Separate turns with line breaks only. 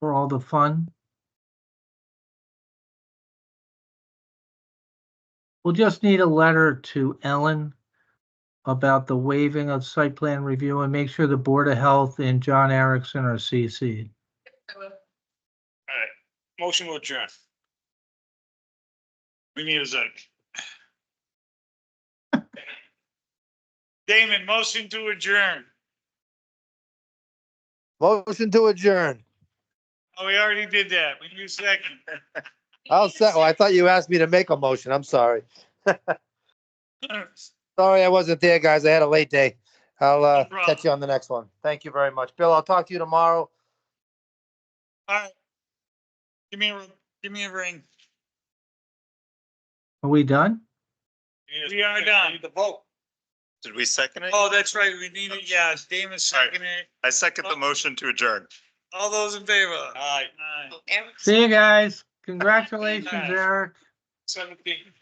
for all the fun. We'll just need a letter to Ellen about the waiving of site plan review and make sure the Board of Health and John Erickson are CC'd.
Motion will adjourn. We need a second. Damon, motion to adjourn.
Motion to adjourn.
Oh, we already did that. We need a second.
I'll say, oh, I thought you asked me to make a motion. I'm sorry. Sorry, I wasn't there, guys. I had a late day. I'll uh,
problem.
catch you on the next one. Thank you very much. Bill, I'll talk to you tomorrow.
Give me, a give me a ring.
Are we done?
We are done.
The vote. Did we second it?
Oh, that's right. We need it. Yeah, Damon seconded. it. Oh.
I second the motion to adjourn.
All those in favor? Aye.
See you guys. Congratulations, Eric.
Seventeen.